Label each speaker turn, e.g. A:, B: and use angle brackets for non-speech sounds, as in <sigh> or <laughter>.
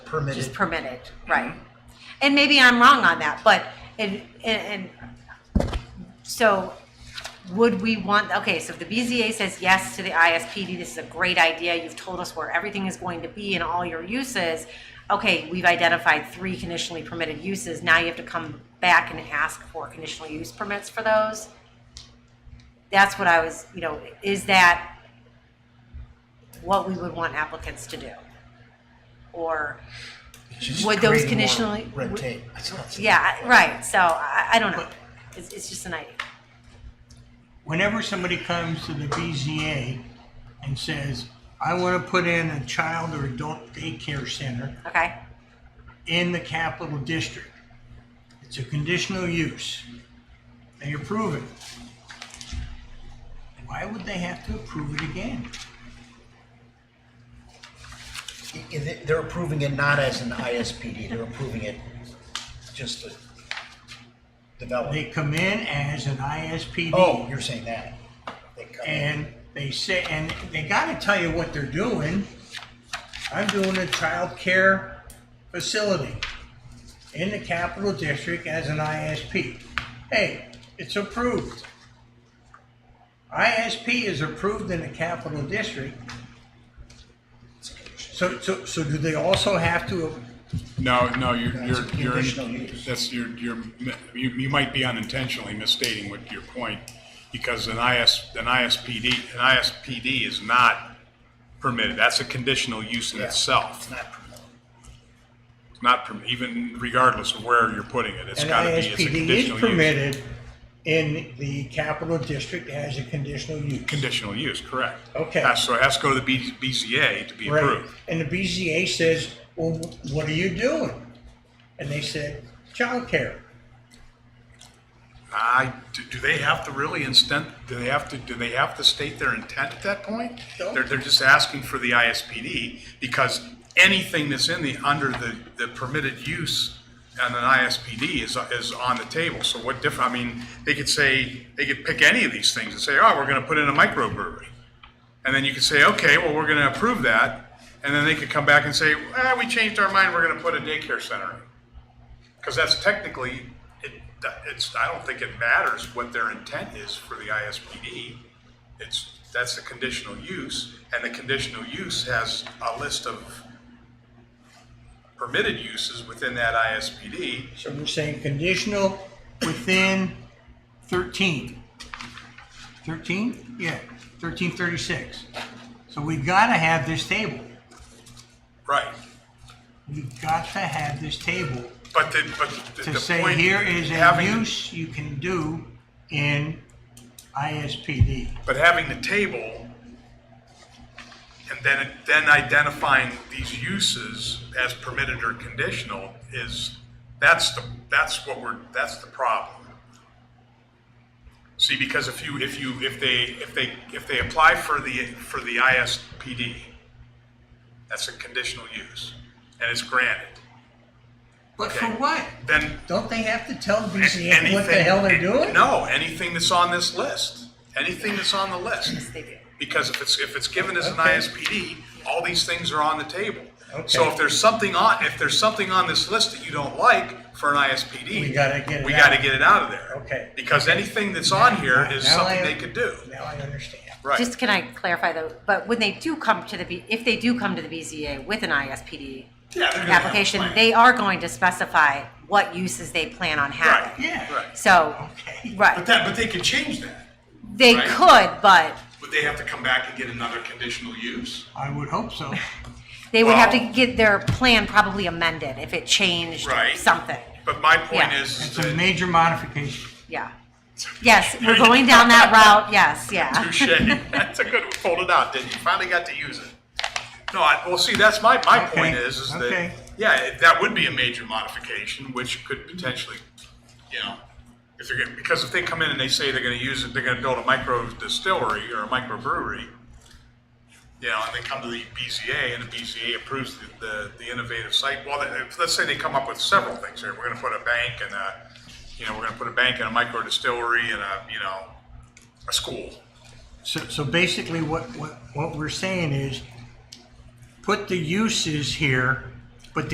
A: Just
B: permitted.
A: permitted, right. And maybe I'm wrong on that, but, and, and, and so would we want, okay, so if the BZA says yes to the ISPD, this is a great idea, you've told us where everything is going to be and all your uses. Okay, we've identified three conditionally permitted uses, now you have to come back and ask for conditional use permits for those? That's what I was, you know, is that what we would want applicants to do? Or
B: It's just
A: would those
B: creating more
A: conditionally-
B: Red
A: would-
B: tape. It's not-
A: Yeah, I- right. So I, I don't know. It's, it's just an idea.
C: whenever somebody comes to the BZA and says, I want to put in a child or adult daycare center
A: Okay.
C: in the capital district, it's a conditional use. They approve it. Why would they have to approve it again?
B: i- i- they- They're approving it not as an ISPD, they're approving it just to develop.
C: They come in as an ISPD.
B: Oh, you're saying that. They come in.
C: and they say, and they gotta tell you what they're doing. I'm doing a child care facility in the capital district as an ISP. Hey, it's approved. ISP is approved in the capital district. So, so, so do they also have to,
D: No, no, you're,
B: That's
D: you're, you're,
B: conditional use.
D: that's, you're, you're, you, you might be unintentionally misstating what your point, because an IS, an ISPD, an ISPD is not permitted, that's a conditional use in
B: Yeah.
D: itself,
B: It's not promoted.
D: not perm, even regardless of where you're putting it, it's
C: an
D: gotta be, it's a
C: ISPD is
D: conditional use.
C: permitted in the capital district as a conditional use?
D: Conditional use, correct.
C: Okay.
D: Uh, So it has to go to the B- BZA to be
C: Right.
D: approved.
C: And the BZA says, well, what are you doing? And they said, childcare.
D: I, do- do they have to really instant, do they have to, do they have to state their intent at that point?
C: No.
D: They're, they're just asking for the ISPD because anything that's in the, under the, the permitted use on an ISPD is, is on the table. So what diff, I mean, they could say, they could pick any of these things and say, oh, we're gonna put in a microbrewery. And then you could say, okay, well, we're gonna approve that. And then they could come back and say, ah, we changed our mind, we're gonna put a daycare center in. Because that's technically, it, it's, I don't think it matters what their intent is for the ISPD. It's, that's the conditional use, and the conditional use has a list of permitted uses within that ISPD.
C: So we're saying conditional within thirteen. Thirteen? Yeah, thirteen thirty-six. So we gotta have this table.
D: Right.
C: We got to have this table
D: But the, but the the point.
C: to say here is a
D: having the-
C: use you can do in ISPD.
D: But having the table and then, then identifying these uses as permitted or conditional is, that's the, that's what we're, that's the problem. See, because if you, if you, if they, if they, if they apply for the, for the ISPD, that's a conditional use and it's granted,
C: But for
D: Okay.
C: what?
D: then
C: Don't they have to tell BZA
D: anything.
C: what the hell they're doing?
D: No, anything that's on this list, anything that's on the list.
A: Yes, they do.
D: Because if it's, if it's given as an
C: Okay.
D: ISPD, all these things are on the table. So
C: Okay.
D: if there's something on, if there's something on this list that you don't like for an ISPD.
C: We gotta get it
D: We gotta
C: out.
D: get it out of there.
C: Okay.
D: Because anything that's on here is
C: Now I-
D: something they could do.
C: Now I understand.
D: Right.
A: Just can I clarify though? But when they do come to the, B- if they do come to the BZA with an ISPD
D: Yeah, they're gonna have a
A: application,
D: plan.
A: they are going to specify what uses they plan on having.
C: Yeah.
D: Right.
A: So,
C: Okay.
D: But
A: right,
D: that, but they could change that.
A: they
D: right.
A: could, but
D: Would they have to come back and get another conditional use?
C: I would hope so.
A: they would have to
D: Well-
A: get their plan probably amended if it changed
D: Right.
A: something.
D: But my point
A: Yeah.
D: is
C: It's a
D: that.
C: major modification.
A: Yeah. Yes, we're going down
D: <laughs>
A: that route. Yes, yeah.
D: Touche. <laughs> That's a good one. Pulled it out, didn't you? Finally got to use it. No, I, well, see, that's my, my
C: Okay,
D: point is, is that,
C: okay.
D: yeah, it- that would be a major modification, which could potentially, you know, if they're gonna, because if they come in and they say they're gonna use it, they're gonna build a micro distillery or a microbrewery, you know, and they come to the BZA and the BZA approves the, the, the innovative site, well, they- let's say they come up with several things here, we're gonna put a bank and a, you know, we're gonna put a bank and a micro distillery and a, you know, a school.
C: So, so basically what, what, what we're saying is put the uses here